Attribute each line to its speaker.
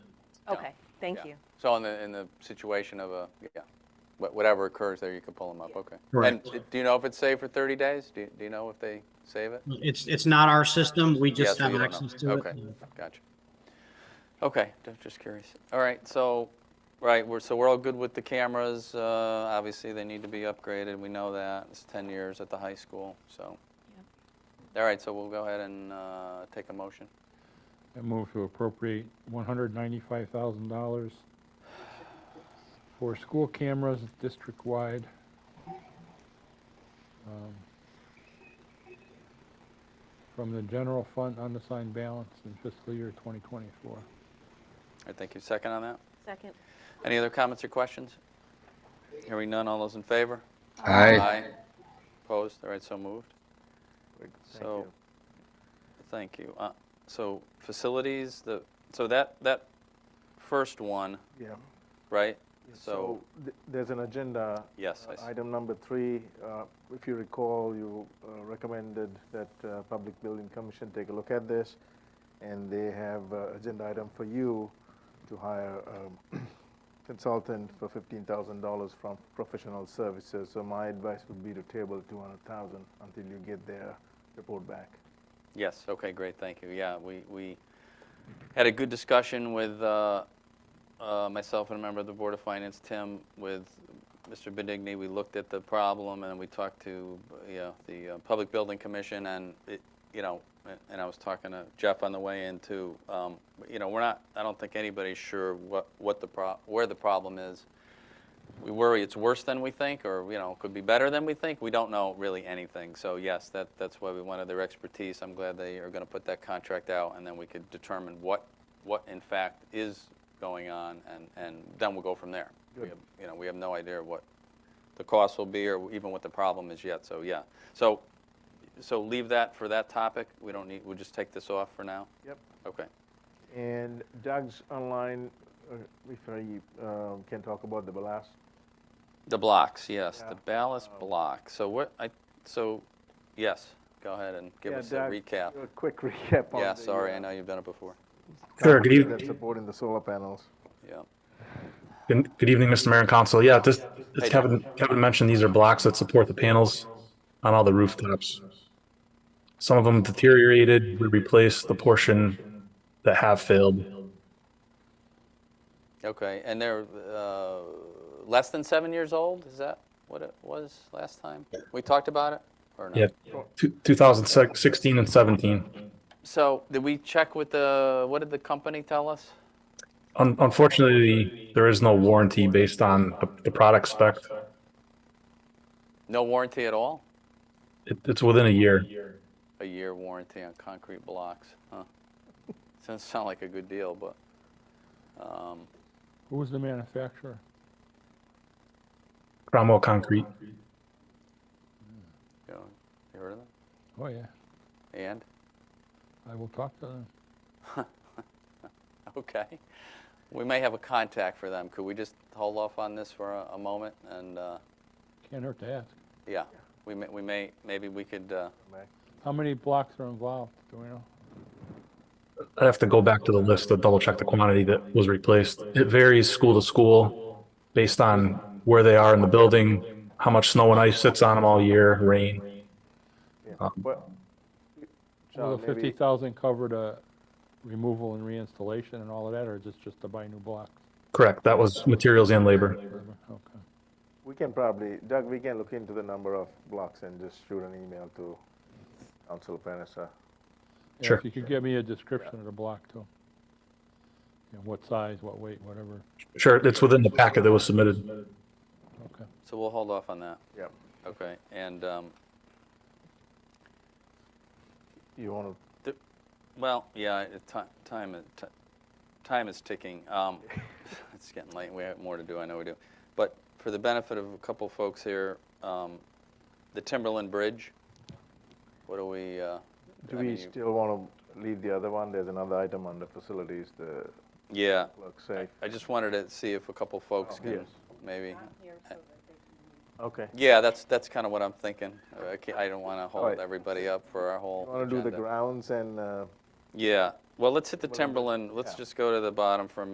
Speaker 1: town.
Speaker 2: Okay, thank
Speaker 1: Yeah.
Speaker 2: you.
Speaker 1: So in the, in the situation of a, yeah, wha- whatever occurs there, you can pull them up,
Speaker 2: Yeah.
Speaker 1: okay. And
Speaker 3: Correct.
Speaker 1: d- do you know if it's saved for 30 days? Do you, do you know if they save it?
Speaker 3: It's, it's not our system. We just
Speaker 1: Yeah, so
Speaker 3: have
Speaker 1: you don't know.
Speaker 3: access to it.
Speaker 1: Okay. Gotcha. Okay, ju- just curious. All right, so, right, we're, so we're all good with the cameras. Uh, Obviously, they need to be upgraded, we know that. It's 10 years at the high school, so. All right, so we'll go ahead and uh, take a motion.
Speaker 4: I move to appropriate $195,000 for school cameras district-wide. um, From the general fund unassigned balance in fiscal year 2024.
Speaker 1: I think you second on that.
Speaker 2: Second.
Speaker 1: Any other comments or questions? Hearing none, all those in favor? Aye. Opposed? All right, so moved. So, thank you. Uh, So facilities, the, so that, that first one,
Speaker 5: Yeah.
Speaker 1: right?
Speaker 5: So
Speaker 1: So,
Speaker 5: th- there's an agenda.
Speaker 1: yes,
Speaker 5: uh,
Speaker 1: I see.
Speaker 5: Item number three, uh, if you recall, you uh, recommended that uh, Public Building Commission take a look at this, and they have uh, agenda item for you to hire a consultant for $15,000 from professional services. So my advice would be to table 200,000 until you get their report back.
Speaker 1: Yes, okay, great, thank you. Yeah, we, we had a good discussion with uh, uh, myself and a member of the Board of Finance, Tim, with Mr. Benigni. We looked at the problem and we talked to, you know, the uh, Public Building Commission and, it- you know, a- and I was talking to Jeff on the way in too. Um, You know, we're not, I don't think anybody's sure what, what the, pro- where the problem is. we worry it's worse than we think, or, you know, could be better than we think. We don't know really anything. So yes, that, that's why we wanted their expertise. I'm glad they are going to put that contract out, and then we could determine what, what in fact is going on, and, and then we'll go from there. We
Speaker 5: Good.
Speaker 1: have- You know, we have no idea what the cost will be, or even what the problem is yet, so yeah. So, so leave that for that topic. We don't need, we'll just take this off for now?
Speaker 5: Yep.
Speaker 1: Okay.
Speaker 5: And Doug's online, uh, if I um, can talk about the last
Speaker 1: The blocks, yes, the
Speaker 5: Yeah.
Speaker 1: ballast
Speaker 5: Um,
Speaker 1: block. So what, I, so, yes, go ahead and give
Speaker 5: Yeah,
Speaker 1: us a
Speaker 5: Doug,
Speaker 1: recap.
Speaker 5: A quick recap on
Speaker 1: Yeah,
Speaker 5: the,
Speaker 1: sorry,
Speaker 5: uh,
Speaker 1: I know you've done it before.
Speaker 6: Sure, good
Speaker 5: companies That's
Speaker 6: evening.
Speaker 5: supporting the solar panels.
Speaker 1: Yeah,
Speaker 6: Good good evening, Mr. Mayor and Council. Yeah, this, as
Speaker 1: Hey,
Speaker 6: Kevin, Kevin mentioned, these are blocks that support the panels on all the rooftops. Some of them deteriorated, we replaced the portion that have failed.
Speaker 1: okay, and they're uh, less than seven years old, is that what it was last time? We talked about it, or no?
Speaker 6: Yeah, two- 2016 and 17.
Speaker 1: So, did we check with the, what did the company tell us?
Speaker 6: Un- Unfortunately, there is no warranty based on the- the product spec.
Speaker 1: No warranty at all?
Speaker 6: It- It's within a year.
Speaker 1: A year warranty on concrete blocks, huh? Doesn't sound like a good deal, but, um,
Speaker 4: Who was the manufacturer?
Speaker 6: Cromwell Concrete.
Speaker 1: you know, you heard of them?
Speaker 4: Oh, yeah,
Speaker 1: And?
Speaker 4: I will talk to them.
Speaker 1: Okay. We may have a contact for them. Could we just hold off on this for a, a moment? And, uh,
Speaker 4: Can't hurt to ask.
Speaker 1: yeah, we may, we may, maybe we could, uh,
Speaker 4: How many blocks are involved, do we know?
Speaker 6: I'd have to go back to the list to double check the quantity that was replaced. It varies school to school based on where they are in the building, how much snow and ice sits on them all year, rain.
Speaker 5: But,
Speaker 4: Will
Speaker 5: John,
Speaker 4: the
Speaker 5: maybe,
Speaker 4: 50,000 cover the removal and reinstallation and all of that, or is this just to buy new blocks?
Speaker 6: Correct, that was materials and labor.
Speaker 4: Okay.
Speaker 5: we can probably, Doug, we can look into the number of blocks and just shoot an email to um, Council Panessa.
Speaker 4: Yeah,
Speaker 6: Sure.
Speaker 4: If you could give me a description of the block too. And what size, what weight, whatever,
Speaker 6: Sure, it's within the packet that was submitted.
Speaker 4: okay.
Speaker 1: so we'll hold off on that.
Speaker 5: Yep.
Speaker 1: Okay, and, um,
Speaker 5: You want
Speaker 1: well, yeah, it- ti- time, is- ti- time is ticking. Um, it's getting late. We have more to do. I know we do. But for the benefit of a couple folks here, um, the Timberland Bridge, what do we, uh,
Speaker 5: to, do
Speaker 1: I
Speaker 5: we
Speaker 1: mean, you-
Speaker 5: still want to leave the other one? There's another item under facilities, the
Speaker 1: yeah,
Speaker 5: clerk safe.
Speaker 1: I just wanted to see if a couple folks
Speaker 5: Oh,
Speaker 1: can
Speaker 5: yes.
Speaker 1: maybe
Speaker 5: Okay.
Speaker 1: Yeah, that's, that's kind of what I'm thinking. Uh, I ca- I don't want to
Speaker 5: All right.
Speaker 1: hold everybody up for our whole
Speaker 5: You want to do the
Speaker 1: agenda.
Speaker 5: grounds and, uh,
Speaker 1: Yeah, well, let's hit the
Speaker 5: Whatever.
Speaker 1: Timberland, let's
Speaker 5: Yeah.
Speaker 1: just go to the bottom for a minute.